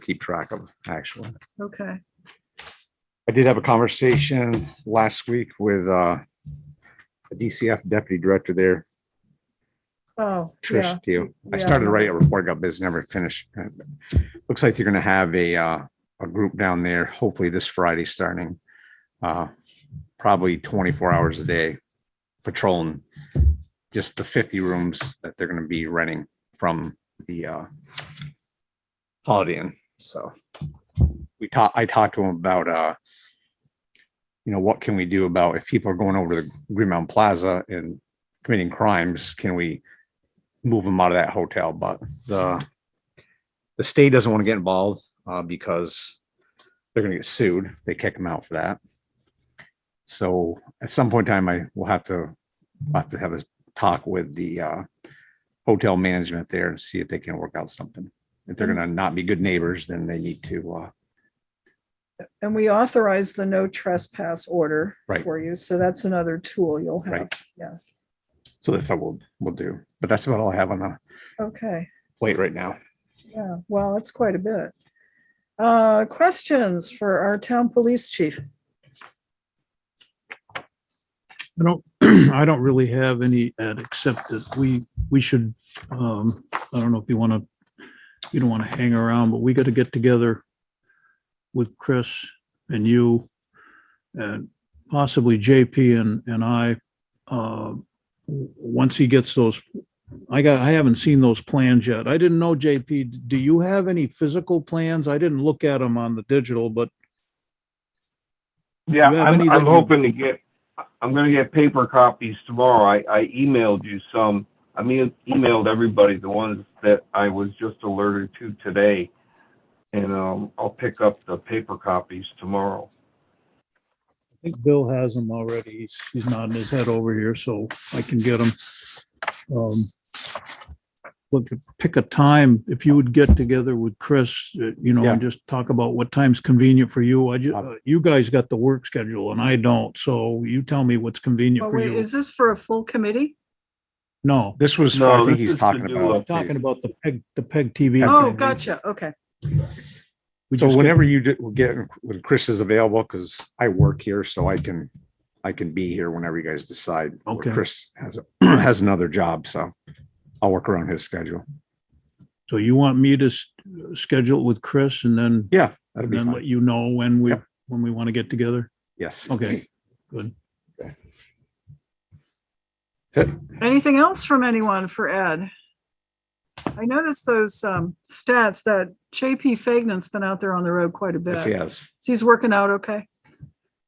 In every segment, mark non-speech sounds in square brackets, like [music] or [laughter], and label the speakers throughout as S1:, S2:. S1: keep track of, actually.
S2: Okay.
S1: I did have a conversation last week with uh, the DCF deputy director there,
S2: Oh, yeah.
S1: Trish, to you. I
S2: Yeah.
S1: started writing a report up, but it's never finished. Looks like you're gonna have a, uh, a group down there, hopefully this Friday starting. uh, Probably twenty-four hours a day patrolling just the fifty rooms that they're gonna be renting from the uh, Holiday Inn, so. We talked, I talked to him about, uh, you know, what can we do about if people are going over to the Green Mountain Plaza and committing crimes, can we move them out of that hotel, but the the state doesn't want to get involved uh, because they're going to get sued. They kick them out for that. So at some point in time, I will have to I'll have to have a talk with the uh, hotel management there and see if they can work out something. If
S3: Mm.
S1: they're going to not be good neighbors, then they need to. Uh,
S2: And we authorize the no trespass order
S1: Right.
S2: for you. So that's another tool you'll have.
S1: Right. so that's what we'll we'll do. But that's about all I have on the
S2: Okay.
S1: plate right now.
S2: Yeah. Well, that's quite a bit. Uh, questions for our town police chief?
S4: I don't, [clears throat] I don't really have any, Ed, except that we, we should, um, I don't know if you want to, you don't want to hang around, but we got to get together with Chris and you and possibly JP and, and I. uh, w- Once he gets those, I got, I haven't seen those plans yet. I didn't know, JP, do you have any physical plans? I didn't look at them on the digital, but
S3: Yeah,
S4: Do you have any
S3: I'm,
S4: that
S3: I'm
S4: you-
S3: hoping to get, I'm gonna get paper copies tomorrow. I, I emailed you some. I mean, emailed everybody the ones that I was just alerted to today. And, um, I'll pick up the paper copies tomorrow.
S4: I think Bill has them already. He's, he's nodding his head over here, so I can get them. Um, Look, pick a time, if you would get together with Chris, uh, you know, and just talk about what time's convenient for you. I
S1: Uh,
S4: ju, you guys got the work schedule and I don't, so you tell me what's convenient
S2: Oh,
S4: for
S2: wait,
S4: you.
S2: is this for a full committee?
S4: No,
S1: This was I
S3: No,
S1: think
S3: this
S1: he's
S3: is to
S1: talking
S3: do
S1: about.
S3: a-
S4: talking about the peg, the peg TV.
S2: Oh,
S4: thing.
S2: gotcha. Okay.
S4: We
S1: So
S4: just get-
S1: whenever you do- will get, when Chris is available, because I work here, so I can, I can be here whenever you guys decide. Or
S4: Okay.
S1: Chris has, [clears throat] has another job, so I'll work around his schedule.
S4: So you want me to s- uh, schedule it with Chris and then,
S1: Yeah, that'd
S4: and
S1: be
S4: then let
S1: fine.
S4: you know when we,
S1: Yep.
S4: when we want to get together?
S1: Yes.
S4: Okay, good.
S2: Anything else from anyone for Ed? I noticed those, um, stats that JP Fagnan's been out there on the road quite a
S1: Yes, he
S2: bit.
S1: has.
S2: He's working out okay?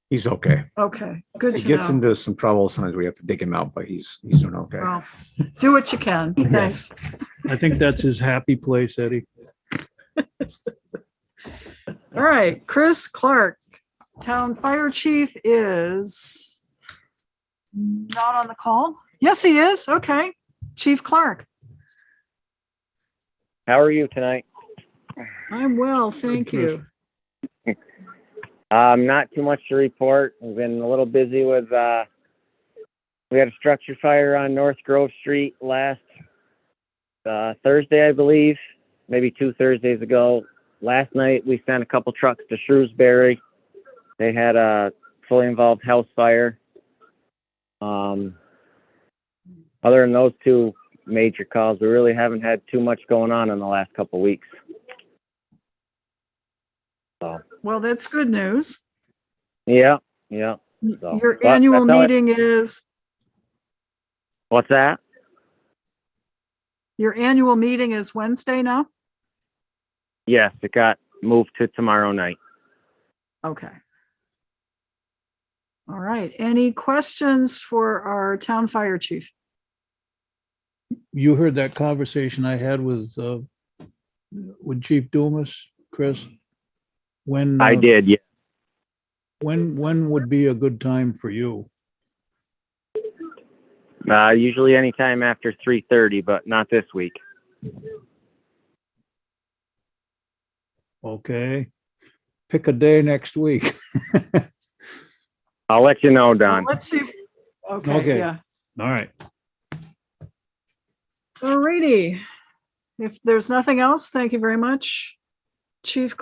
S1: He's okay.
S2: Okay. Good
S1: He
S2: to
S1: gets
S2: know.
S1: into some trouble. Sometimes we have to dig him out, but he's, he's doing okay.
S2: Well, do what you
S5: [laughs]
S2: can. Thanks.
S4: I think that's his happy place, Eddie.
S2: All right, Chris Clark, town fire chief is not on the call? Yes, he is. Okay. Chief Clark,
S5: How are you tonight?
S2: I'm well, thank you.
S5: Um, not too much to report. We've been a little busy with, uh, we had a structure fire on North Grove Street last, uh, Thursday, I believe, maybe two Thursdays ago. Last night, we sent a couple trucks to Shrewsbury. They had a fully involved house fire. Um, other than those two major calls, we really haven't had too much going on in the last couple weeks.
S2: Well, that's good news.
S5: Yeah, yeah. So,
S2: Your
S5: but
S2: annual
S5: that's all I-
S2: meeting is,
S5: What's that?
S2: your annual meeting is Wednesday now?
S5: Yes, it got moved to tomorrow night.
S2: Okay. All right, any questions for our town fire chief?
S4: You heard that conversation I had with, uh, with Chief Dumas, Chris? When?
S5: I
S4: uh,
S5: did, yeah.
S4: When, when would be a good time for you?
S5: Uh, usually anytime after three thirty, but not this week.
S4: Okay. Pick a day next week. [laughs]
S5: I'll let you know,
S2: Well,
S5: Don.
S2: Let's see. if- Okay,
S4: Okay.
S2: yeah.
S4: All right.
S2: Alrighty. If there's nothing else, thank you very much. Chief